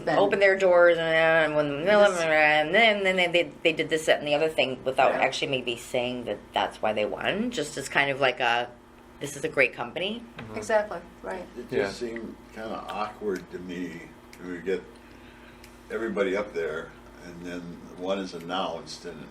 been. open their doors and, and when and then then they, they, they did this that, and the other thing without Yeah. actually maybe saying that that's why they won just as kind of like a this is a great company Exactly, right. It Yeah. just seemed kind of awkward to me. when We get everybody up there, and then one is announced, and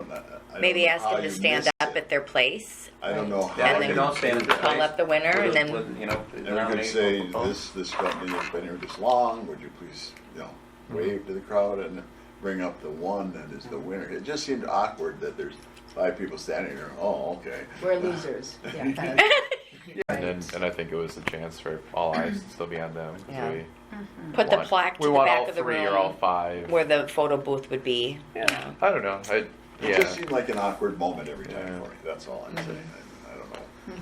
I- I don't maybe know ask how them to you stand missed up it. at their place I don't know how. Yeah, And they then can all stand in their call place. up the winner and With a- then- with, you know, And we could nominate say both. this this company has been here this long. Would you please, you know, Mm-hmm. wave to the crowd and bring up the one that is the winner? It just seemed awkward that there's five people standing there. Oh, okay. We're losers. Yeah. And then, and I think it was a chance for all eyes to still be on them. 'cause Yeah. we put the want- plaque we to the want back all of the three room or all five. where the photo booth would be yeah. I don't know. I, It yeah. just seemed like an awkward moment every time Yeah. Mm-hmm. for me. That's all I'm saying. I, I don't know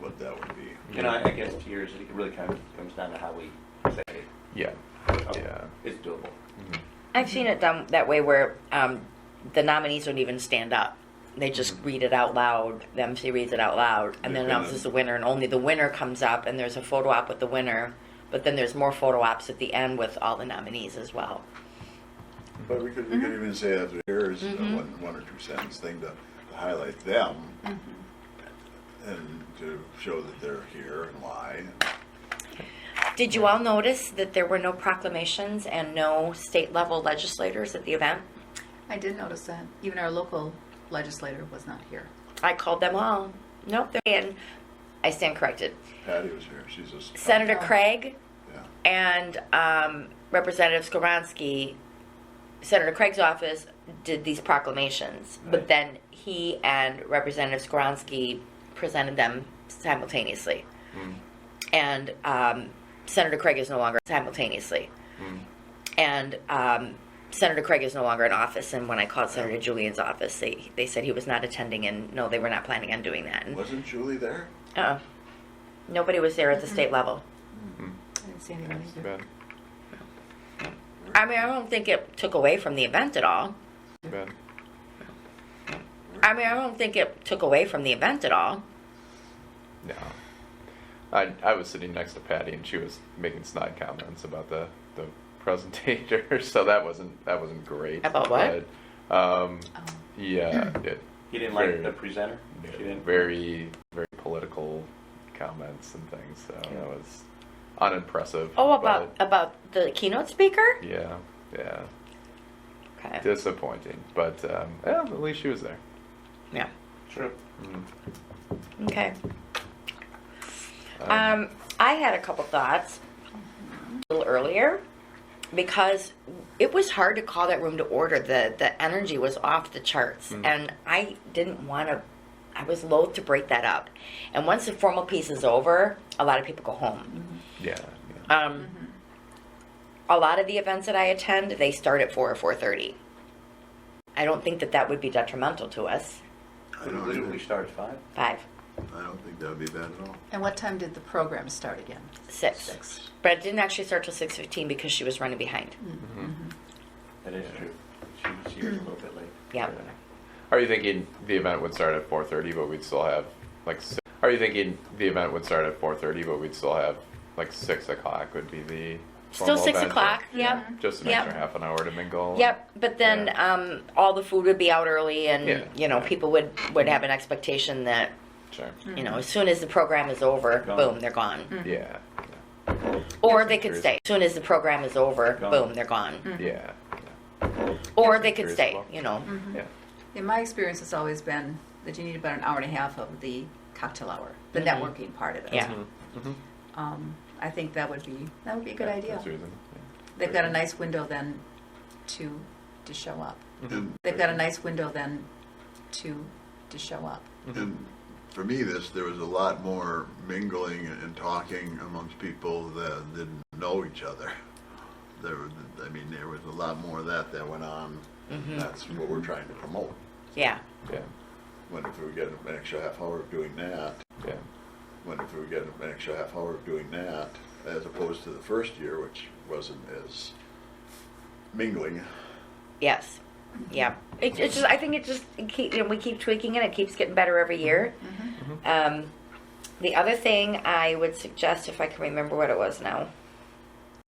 what that would be. You know, I I guess to yours, it really kind of comes down to how we say it. yeah. Mm-hmm. Okay. Yeah. It's doable. I've seen it done that way where um, the nominees don't even stand up. They just read it out loud. The MC reads it out loud and then Yeah. announces the winner, and only the winner comes up, and there's a photo op with the winner. But then there's more photo ops at the end with all the nominees as well. But we could, we could even say after yours, a one, one or two sentence thing to, to highlight them Mm-hmm. and to show that they're here and why. Did you all notice that there were no proclamations and no state level legislators at the event? I did notice that. Even our local legislator was not here. I called them all. Nope. they're- And I stand corrected. Patty was here. She's a s- Senator Oh. Craig, Yeah. and um, Representative Skoronsky, Senator Craig's office did these proclamations, but Right. then he and Representative Skoronsky presented them simultaneously, and um, Senator Craig is no longer simultaneously, Mm-hmm. and um, Senator Craig is no longer in office. And when I called Senator Julian's office, they they said he was not attending, and no, they were not planning on doing that. And, Wasn't Julie there? uh, nobody was there at the state level. Mm-hmm. I didn't see anyone That's too either. bad. I mean, I don't think it took away from the event at all. Too bad. I mean, I don't think it took away from the event at all. No. I, I was sitting next to Patty and she was making snide comments about the, the presentator, so that wasn't that wasn't great. About what? But, um, Oh. yeah, it, You didn't like Very- the presenter? You didn't? very very political comments and things. So that was unimpressive. Oh, about but, about the keynote speaker. yeah, yeah, Okay. disappointing. But um, yeah, at least she was there. Yeah. True. Mm. Okay. Um, I had a couple thoughts a little earlier because it was hard to call that room to order. The the energy was off the charts, and I didn't want to. I was loath to break that up. And once the formal piece is over, a lot of people go home. Mm-hmm. yeah, yeah. Um, Mm-hmm. A lot of the events that I attend, they start at four or four thirty. I don't think that that would be detrimental to us. I Would don't, would we even- start at five? Five, I don't think that would be bad at all. And what time did the program start again? six, Six. but it didn't actually start till six fifteen because she was running behind. Mm-hmm. Mm-hmm. That is true. She, she was a little bit late. Yeah. Are you thinking the event would start at 4:30, but we'd still have like? si Are you thinking the event would start at 4:30, but we'd still have like six o'clock would be the Still formal six event, o'clock. or- Yep. Just an Yep. extra half an hour to mingle. Yep. But then Oh. Yeah. um, all the food would be out early, and Yeah. you know people would would have an expectation that Sure. you know as soon as the program is over, Gone. boom, they're gone. Mm-hmm. Yeah. Or Yes, they it could is. stay. As soon as the program is over, Gone. boom, they're gone. Yeah. Yeah. Or Yes, they it could is stay. well. You know. yeah. In my experience, it's always been that you need about an hour and a half of the cocktail hour, the Mm-hmm. Mhm. networking part of it. Yeah. Um, I think that would be that would be a good idea. That's reason. They've got a nice window then to to show up. And, They've got a nice window then to to show up. and for me, this, there was a lot more mingling and talking amongst people that didn't know each other. There, was- I mean, there was a lot more of that that went on. That's what we're trying to promote. Yeah. Yeah. When if we get an extra half hour of doing that, Yeah. when if we get an extra half hour of doing that, as opposed to the first year, which wasn't as mingling. Yes. Yeah. It, it's just. I think it just. It keep, you know, we keep tweaking it. It keeps getting better every year. Um, the other thing I would suggest, if I can remember what it was now,